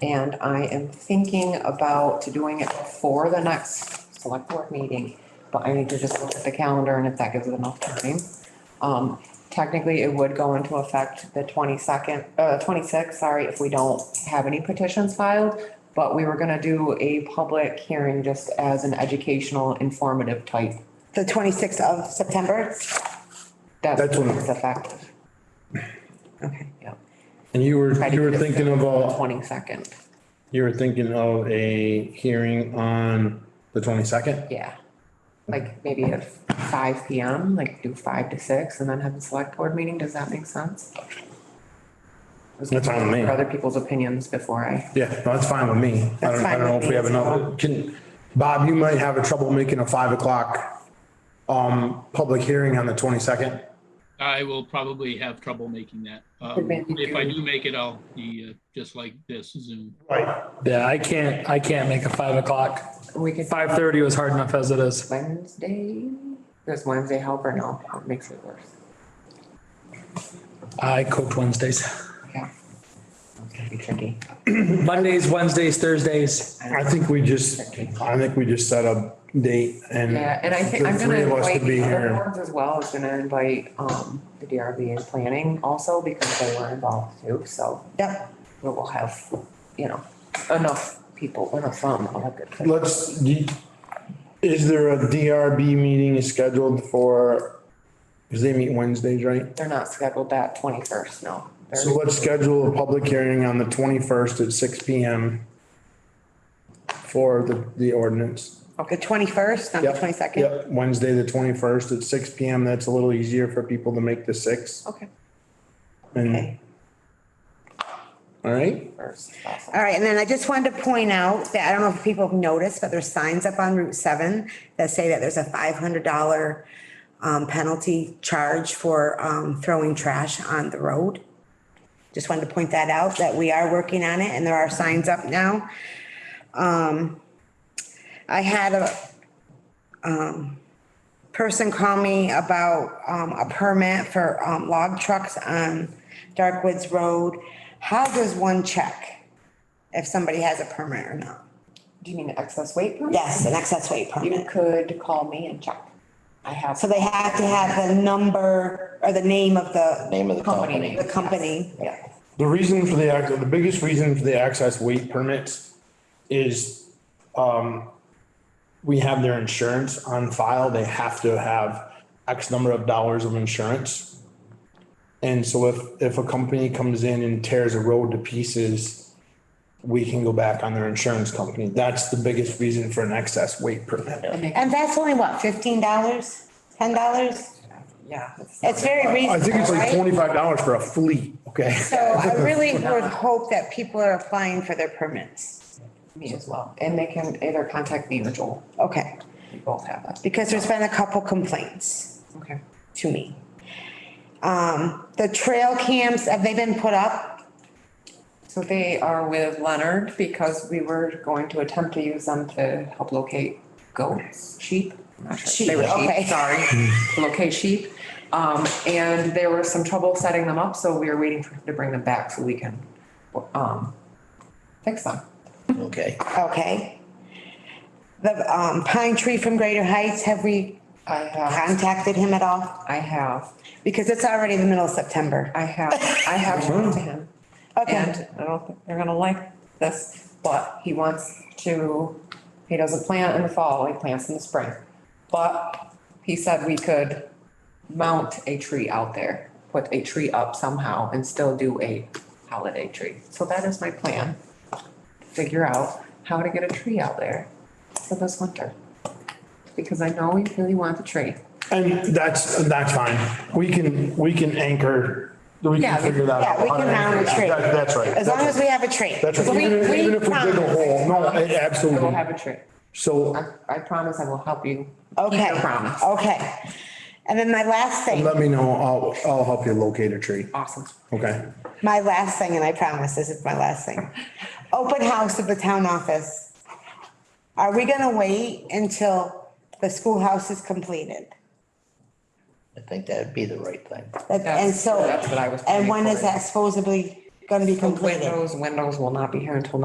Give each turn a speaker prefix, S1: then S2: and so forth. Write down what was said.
S1: And I am thinking about doing it before the next select board meeting. But I need to just look at the calendar and if that gives it enough time. Um, technically, it would go into effect the twenty-second, uh, twenty-sixth, sorry, if we don't have any petitions filed. But we were gonna do a public hearing just as an educational informative type.
S2: The twenty-sixth of September?
S1: That's
S3: That's
S1: when
S3: when-
S1: it's effective,
S2: Okay.
S1: yeah,
S3: And you were, you were thinking of a,
S1: twenty-second,
S3: you were thinking of a hearing on the twenty-second?
S1: yeah. Like maybe at five P M, like do five to six and then have a select board meeting, does that make sense?
S3: That's fine with
S1: For
S3: me.
S1: other people's opinions before I,
S3: Yeah, no, that's fine with me. I
S2: That's
S3: don't, I
S2: fine
S3: don't know
S2: with
S3: if we
S2: me
S3: have
S2: as
S3: another, can, Bob, you might have a trouble making a five o'clock um, public hearing on the twenty-second.
S4: I will probably have trouble making that. Um,
S1: Advantage.
S4: If I do make it, I'll be uh, just like this Zoom.
S3: Right.
S5: Yeah, I can't, I can't make a five o'clock.
S1: we could.
S5: Five thirty was hard enough as it is.
S1: Wednesday, does Wednesday help or no, it makes it worse,
S5: I cooked Wednesdays.
S1: yeah. It's gonna be tricky,
S5: Mondays, Wednesdays, Thursdays.
S3: I think we just, I think we just set a date and
S1: yeah, and I think I'm
S3: the
S1: gonna
S3: three of us
S1: invite
S3: to be
S1: other
S3: here.
S1: boards as well, I was gonna invite, um, the DRB and planning also because they were involved too, so.
S2: Yep,
S1: we will have, you know, enough people, enough fun, all that good stuff.
S3: Let's, do- is there a DRB meeting scheduled for, because they meet Wednesdays, right?
S1: They're not scheduled that twenty-first, no. They're-
S3: So let's schedule a public hearing on the twenty-first at six P M for the, the ordinance.
S2: the twenty-first, not the
S3: Yep,
S2: twenty-second?
S3: Yep, Wednesday, the twenty-first at six P M. That's a little easier for people to make the six
S2: Okay.
S3: and,
S2: Okay.
S3: all right?
S1: First, awesome.
S2: All right, and then I just wanted to point out that, I don't know if people have noticed, but there's signs up on Route seven that say that there's a five hundred dollar um, penalty charge for, um, throwing trash on the road. Just wanted to point that out, that we are working on it and there are signs up now. Um, I had a, um, person call me about, um, a permit for, um, log trucks on Darkwoods Road. How does one check if somebody has a permit or not?
S1: Do you mean excess weight? permit?
S2: Yes, an excess weight
S1: You
S2: permit.
S1: could call me and check. I have.
S2: So they have to have the number or the name of the,
S6: Name of the
S1: Company
S6: company.
S2: the company.
S1: Yeah,
S3: The reason for the, ac- the biggest reason for the access weight permits is, um, we have their insurance on file. They have to have X number of dollars of insurance. And so if, if a company comes in and tears a road to pieces, we can go back on their insurance company. That's the biggest reason for an excess weight permit.
S2: And that's only what, fifteen dollars, ten dollars?
S1: yeah.
S2: It's very
S3: I think it's
S2: reasonable,
S3: like
S2: right?
S3: twenty-five dollars for a fleet, okay?
S2: So I really would hope that people are applying for their permits.
S1: Me as well. And they can either contact me or Joel.
S2: Okay,
S1: We both have that.
S2: because there's been a couple complaints
S1: Okay.
S2: to me. Um, the trail cams, have they been put up?
S1: So they are with Leonard because we were going to attempt to use them to help locate goats, sheep. I'm not sure. They were
S2: Sheep, okay.
S1: sheep, sorry, locate sheep. Um, and there was some trouble setting them up, so we were waiting for him to bring them back so we can, um, fix them.
S6: Okay.
S2: Okay. The, um, pine tree from Greater Heights, have we
S1: I have,
S2: contacted him at all?
S1: I have,
S2: Because it's already the middle of September.
S1: I have, I have talked to him.
S2: Okay,
S1: And I don't think they're gonna like this, but he wants to, he doesn't plant in the fall, he plants in the spring. But he said we could mount a tree out there, put a tree up somehow and still do a holiday tree. So that is my plan. Figure out how to get a tree out there for this winter. Because I know we really want the tree.
S3: And that's, that's fine. We can, we can anchor, we
S1: Yeah,
S3: can
S1: we-
S3: figure that out.
S2: yeah, we can mount a tree.
S3: That- That's right.
S2: as long as we have a tree.
S3: That's right.
S2: We-
S3: Even if,
S2: we
S3: even if we dig a
S2: promise.
S3: hole, no, a-
S1: I will
S3: absolutely.
S1: have a tree. I,
S3: So
S1: I promise I will help you. keep
S2: Okay,
S1: your promise.
S2: okay. And then my last thing,
S3: let me know, I'll, I'll help you locate a tree,
S1: Awesome.
S3: okay?
S2: my last thing, and I promise this is my last thing. Open house of the town office. Are we gonna wait until the schoolhouse is completed?
S6: I think that'd be the right thing.
S2: That- And
S1: That's-
S2: so,
S1: that's what I was
S2: and when
S1: planning
S2: is
S1: for.
S2: that supposedly gonna be completed?
S1: Windows, windows will not be here until